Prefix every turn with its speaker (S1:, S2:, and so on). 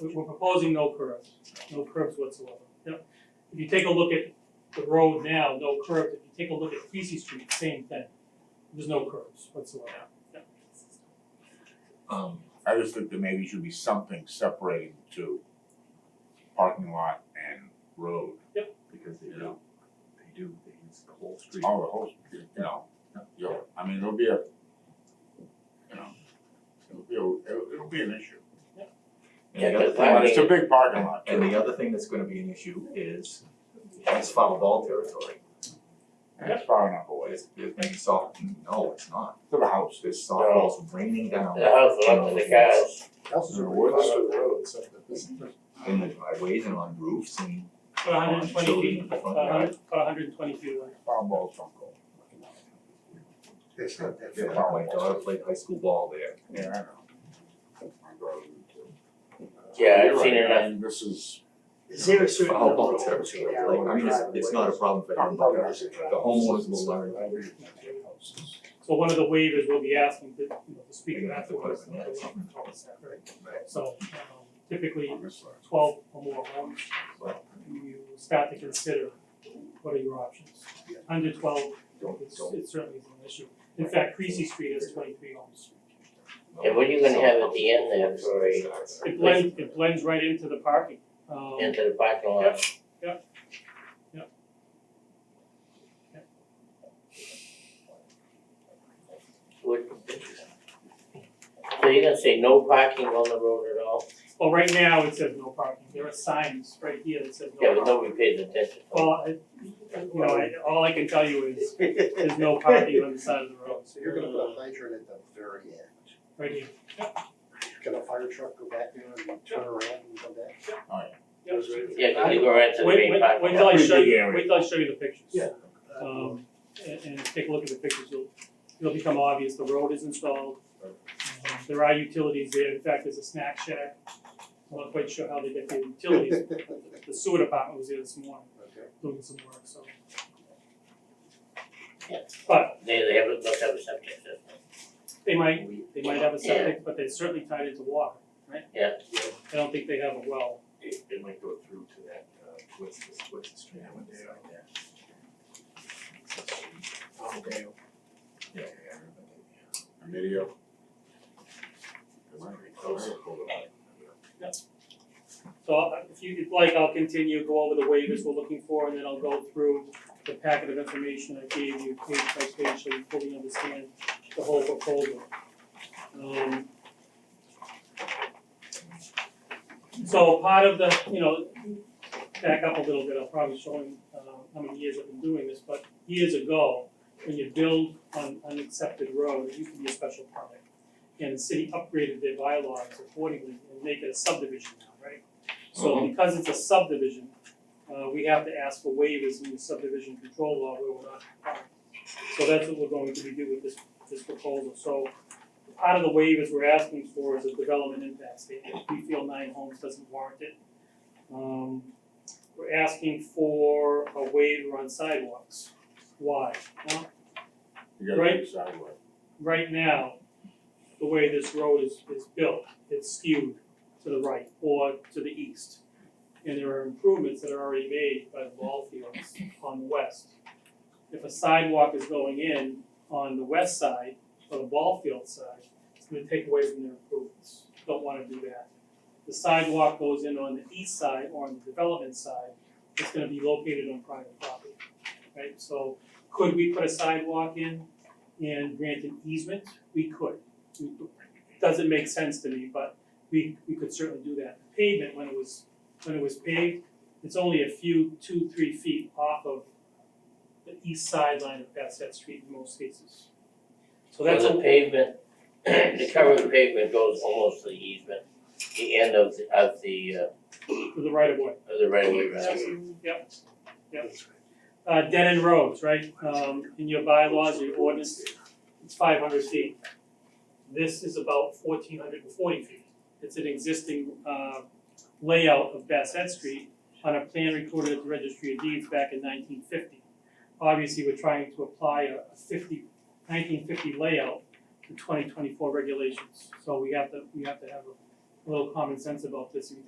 S1: we- we're proposing no curves, no curves whatsoever. Yep. If you take a look at the road now, no curves, if you take a look at Creasy Street, same thing. There's no curves whatsoever. Yep.
S2: Um, I just think there maybe should be something separating to parking lot and road,
S3: because they do, they do, they use the whole street.
S4: Oh,
S2: all Oh, the whole, you know, you know, I mean, it'll be a, you know, it'll be, a- it'll, it'll be an issue.
S3: And the other thing,
S2: But it's a big parking lot.
S3: and the other thing that's gonna be an issue is, it's foul ball territory.
S2: That's far enough away,
S3: It's, it may be soft, no, it's not,
S2: to the house.
S3: there's soft balls raining down.
S4: The house is
S3: in
S4: up to
S3: those
S4: the cars.
S5: Houses
S2: There
S5: are
S2: were
S5: way
S2: those-
S5: under the road, except that this is.
S3: In the driveways and on roofs and,
S1: About hundred and twenty
S3: Oh, Children in
S1: feet,
S3: the front
S1: about hundred, about hundred and twenty feet away.
S2: Farm balls don't go.
S5: It's not that
S2: Yeah.
S5: far.
S3: my daughter played high school ball there.
S2: Yeah, I know. My brother would too.
S4: Yeah, I've
S2: You're
S4: seen
S2: right,
S4: it
S2: I mean, this is,
S5: Is there a
S3: Foul ball territory, like, I mean, it's, it's not a problem for
S2: I'm
S3: them,
S2: probably
S3: but
S2: not saying
S3: the homeowners will learn,
S1: So one of the waivers we'll be asking to, you know, to speak
S3: You're
S1: to
S3: gonna have
S1: that
S3: to
S1: for
S3: put
S1: us.
S3: it in there.
S5: Right.
S1: So um, typically
S2: on this side.
S1: twelve or more homes,
S3: Right.
S1: you start to consider what are your options.
S5: Yeah.
S1: Under twelve,
S3: Don't-
S1: it's
S3: don't-
S1: it certainly is an issue. In fact, Creasy Street has twenty-three homes.
S4: And what are you gonna have at the end there for a-
S1: It blends, it blends right into the parking. Um,
S4: into the parking lot. What- So you're gonna say no parking on the road at all?
S1: Well, right now, it says no parking. There are signs right here that says no
S4: Yeah,
S1: Oh.
S4: but
S1: parking.
S4: nobody pays attention.
S1: Well, I, you know, I, all I can tell you is there's no parking on the side of the road,
S5: So you're gonna put a hydrant at the very end.
S1: right here.
S5: Can a fire truck go back there and turn around and come back?
S2: All right.
S4: Yeah, 'cause you go right to the
S1: Wait,
S4: main
S1: wait,
S4: parking
S1: wait
S4: lot.
S1: till I
S2: Pretty
S1: show
S2: big
S1: you,
S2: area.
S1: wait till I show you the pictures.
S5: Yeah.
S1: Um, and, and take a look at the pictures, it'll, it'll become obvious, the road is installed. Um, There are utilities there, in fact, there's a snack shack, I'm not quite sure how they get their utilities, the sewer department was there this morning,
S5: Okay.
S1: doing some work, so.
S4: Yeah.
S1: But
S4: They they have, must have a septic system.
S1: they might, they might have a septic, but they're certainly tied into water, right?
S4: Yeah.
S1: I don't think they have a well,
S3: It, it might go through to that, uh, what's this, what's the street, I went down there.
S5: Okay.
S3: Yeah, yeah, I
S2: A video.
S1: So uh, if you'd like, I'll continue, go over the waivers we're looking for, and then I'll go through the packet of information I gave you page by page, so you fully understand the whole proposal. Um. So part of the, you know, back up a little bit, I'll probably show him uh how many years I've been doing this, but years ago, when you build on unaccepted road, it used to be a special permit. And the city upgraded their bylaws accordingly and make it a subdivision now, right? So because it's a subdivision, uh we have to ask for waivers in the subdivision control law where we're not. required. So that's what we're going to be doing with this this proposal, so part of the waivers we're asking for is a development impact statement, we feel nine homes doesn't warrant it. Um we're asking for a waiver on sidewalks, why? Well,
S2: You gotta
S1: Right.
S2: decide what.
S1: right now, the way this road is, is built, it's skewed to the right or to the east. And there are improvements that are already made by the ball fields on the west. If a sidewalk is going in on the west side or the ball field side, it's gonna take away from their improvements, don't wanna do that. The sidewalk goes in on the east side or on the development side, it's gonna be located on private property, right? So could we put a sidewalk in and grant an easement, we could. We- Doesn't make sense to me, but we we could certainly do that. Pavement, when it was when it was paved, it's only a few, two, three feet off of the east sideline of Bassett Street in most cases. So that's
S4: So the
S1: a,
S4: pavement, the covered pavement goes almost to the easement, the end of the of the uh
S1: the right of way.
S4: of the right of way, right?
S1: Absolutely, Yep, yep. Uh, dead end roads, right, um, in your bylaws, your ordinance, it's five hundred feet. This is about fourteen hundred and forty feet. It's an existing, uh, layout of Bassett Street on a plan recorded at the Registry of Deeds back in nineteen fifty. Obviously, we're trying to apply a 50 1950 layout to twenty twenty-four regulations, so we have to, we have to have a little common sense about this, and